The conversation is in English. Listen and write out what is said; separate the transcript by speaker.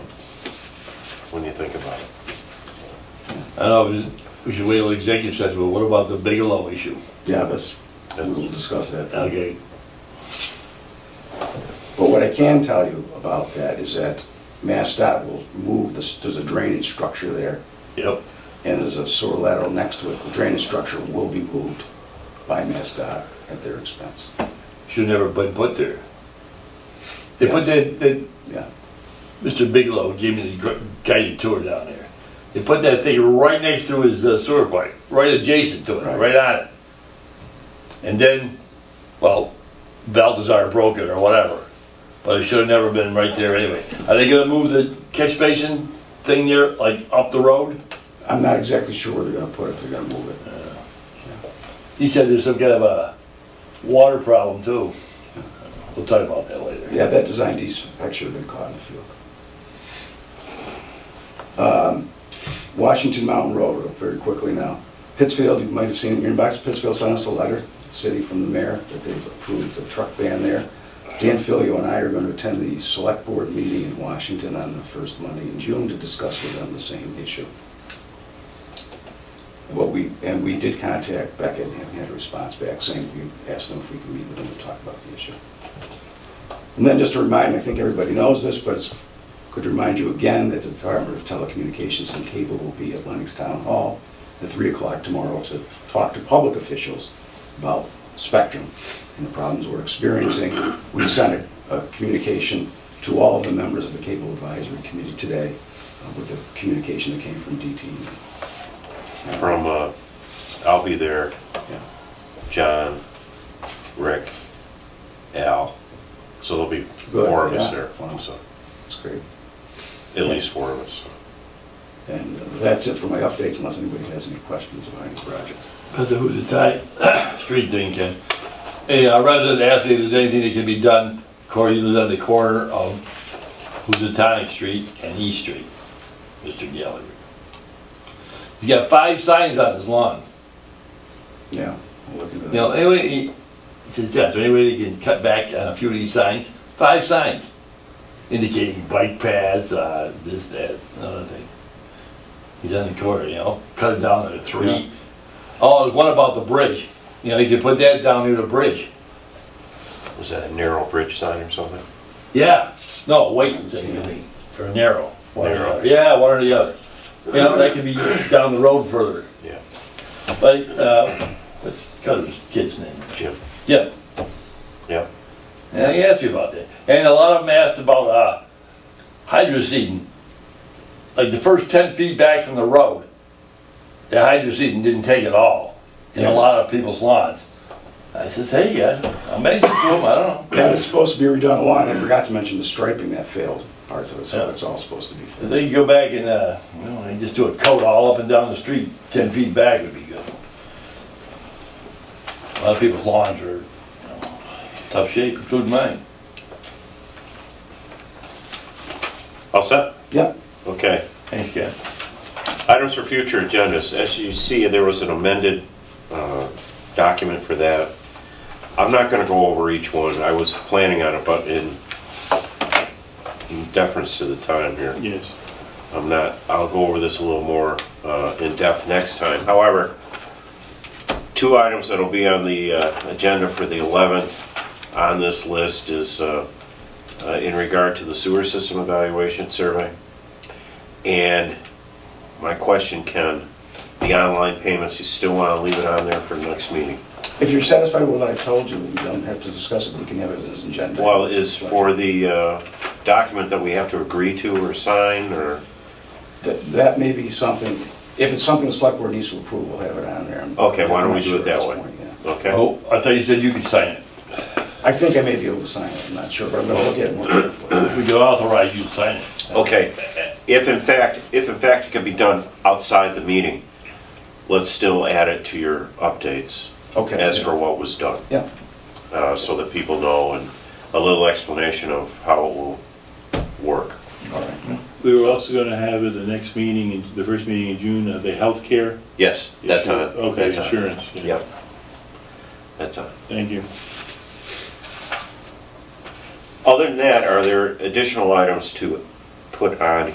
Speaker 1: when you think about it.
Speaker 2: I don't know, is- we should wait till executive session, but what about the Bigelow issue?
Speaker 3: Yeah, that's, we'll discuss that.
Speaker 2: Okay,
Speaker 3: But what I can tell you about that is that MassDOT will move, this- there's a drainage structure there,
Speaker 2: yep,
Speaker 3: and there's a sewer lateral next to it. The drainage structure will be moved by MassDOT at their expense.
Speaker 2: should never have been put there. They put
Speaker 3: Yes.
Speaker 2: that, that,
Speaker 3: Yeah,
Speaker 2: Mr. Bigelow gave me the gr- guided tour down there. They put that thing right next to his uh, sewer pipe, right adjacent to it,
Speaker 3: Right.
Speaker 2: right on it. And then, well, Balthazar broke it or whatever, but it should have never been right there anyway. Are they gonna move the catch basin thing there, like up the road?
Speaker 3: I'm not exactly sure where they're gonna put it, they're gonna move it.
Speaker 2: He said there's some kind of a water problem too. We'll talk about that later.
Speaker 3: Yeah, that design defect should have been caught in the field. Um, Washington Mountain Road, very quickly now. Pittsfield, you might have seen it in your inbox, Pittsfield sent us a letter, city from the mayor, that they've approved the truck ban there. Dan Filio and I are going to attend the select board meeting in Washington on the first Monday in June to discuss with them the same issue. What we, and we did contact Beckett and had a response back saying we asked them if we could meet with them to talk about the issue. And then just to remind, I think everybody knows this, but it's, could remind you again that the Department of Telecommunications and Cable will be at Lennox Town Hall at three o'clock tomorrow to talk to public officials about spectrum and the problems we're experiencing. We sent a, a communication to all of the members of the Cable Advisory Committee today uh, with a communication that came from E. DT.
Speaker 1: From, uh, I'll be there,
Speaker 3: Yeah.
Speaker 1: John, Rick, Al, so there'll be
Speaker 3: Good,
Speaker 1: four of us
Speaker 3: yeah.
Speaker 1: there, so,
Speaker 3: That's great.
Speaker 1: at least four of us.
Speaker 3: And uh, that's it for my updates unless anybody has any questions about any project.
Speaker 2: About the Hoosier Tide Street thing, Ken. Hey, a resident asked me if there's anything that can be done, Corey lives on the corner of Housatonic Street and E Street, Mr. Gallagher. He's got five signs on his lawn.
Speaker 3: Yeah. we'll look into that.
Speaker 2: You know, anyway, he he says, yeah, is there any way they can cut back on a few of these signs? Five signs indicating bike paths, uh, this, that, another thing. He's on the corner, you know, cut it down to
Speaker 3: Yeah.
Speaker 2: three. Oh, there's one about the bridge. You know, you could put that down near the bridge.
Speaker 1: Is that a narrow bridge sign or something?
Speaker 2: Yeah, no, wait, or narrow. one or the
Speaker 1: Narrow.
Speaker 2: other. Yeah, one or the other. You know, that could be down the road further.
Speaker 1: Yeah,
Speaker 2: Like, uh, what's Cutter's kid's name?
Speaker 1: Jim,
Speaker 2: Yeah.
Speaker 1: yeah,
Speaker 2: Yeah, he asked me about that. And a lot of them asked about uh, hydro seeding. Like the first 10 feet back from the road, the hydro seeding didn't take at all in a
Speaker 3: Yeah.
Speaker 2: lot of people's lawns. I says, hey, guys, I'm amazing to them, I don't know.
Speaker 3: That is supposed to be redone a lot, I forgot to mention the striping that failed parts of it, so
Speaker 2: Yeah.
Speaker 3: it's all supposed to be
Speaker 2: If
Speaker 3: fixed.
Speaker 2: they could go back and, uh, you know, they just do a coat all up and down the street, 10 feet back would be good. A lot of people's lawns are you know, tough shape, including mine.
Speaker 1: all set?
Speaker 3: Yep,
Speaker 1: Okay.
Speaker 2: Thanks, Ken.
Speaker 1: Items for future agendas, as you see, there was an amended uh, document for that. I'm not gonna go over each one, I was planning on it, but in in deference to the time here. Yes. I'm not, I'll go over this a little more uh, in depth next time. However, two items that'll be on the uh, agenda for the 11th on this list is uh, uh, in regard to the sewer system evaluation survey. And my question, Ken, the online payments, you still want to leave it on there for the next meeting?
Speaker 3: if you're satisfied with what I told you, we don't have to discuss it, we can have it as an agenda.
Speaker 1: Well, is for the uh, document that we have to agree to or sign, or,
Speaker 3: That, that may be something, if it's something the select board needs to approve, we'll have it on there. I'm-
Speaker 1: Okay, why don't we
Speaker 3: I'm not
Speaker 1: do it
Speaker 3: sure at
Speaker 1: that
Speaker 3: this
Speaker 1: way?
Speaker 3: point, yeah.
Speaker 1: okay?
Speaker 2: Oh, I thought you said you could sign it.
Speaker 3: I think I may be able to sign it, I'm not sure, but I'm gonna look at it more carefully.
Speaker 2: If we could authorize you to sign it.
Speaker 1: Okay, if in fact, if in fact it can be done outside the meeting, let's still add it to your updates
Speaker 3: Okay.
Speaker 1: as for what was done,
Speaker 3: Yeah,
Speaker 1: uh, so that people know, and a little explanation of how it will work.
Speaker 3: all right.
Speaker 4: We were also gonna have at the next meeting, in- the first meeting in June, uh, the healthcare.
Speaker 1: Yes, that's on it.
Speaker 4: Okay,
Speaker 1: That's on it.
Speaker 4: insurance, yeah.
Speaker 1: Yep. That's on it.
Speaker 4: Thank you.
Speaker 1: Other than that, are there additional items to put on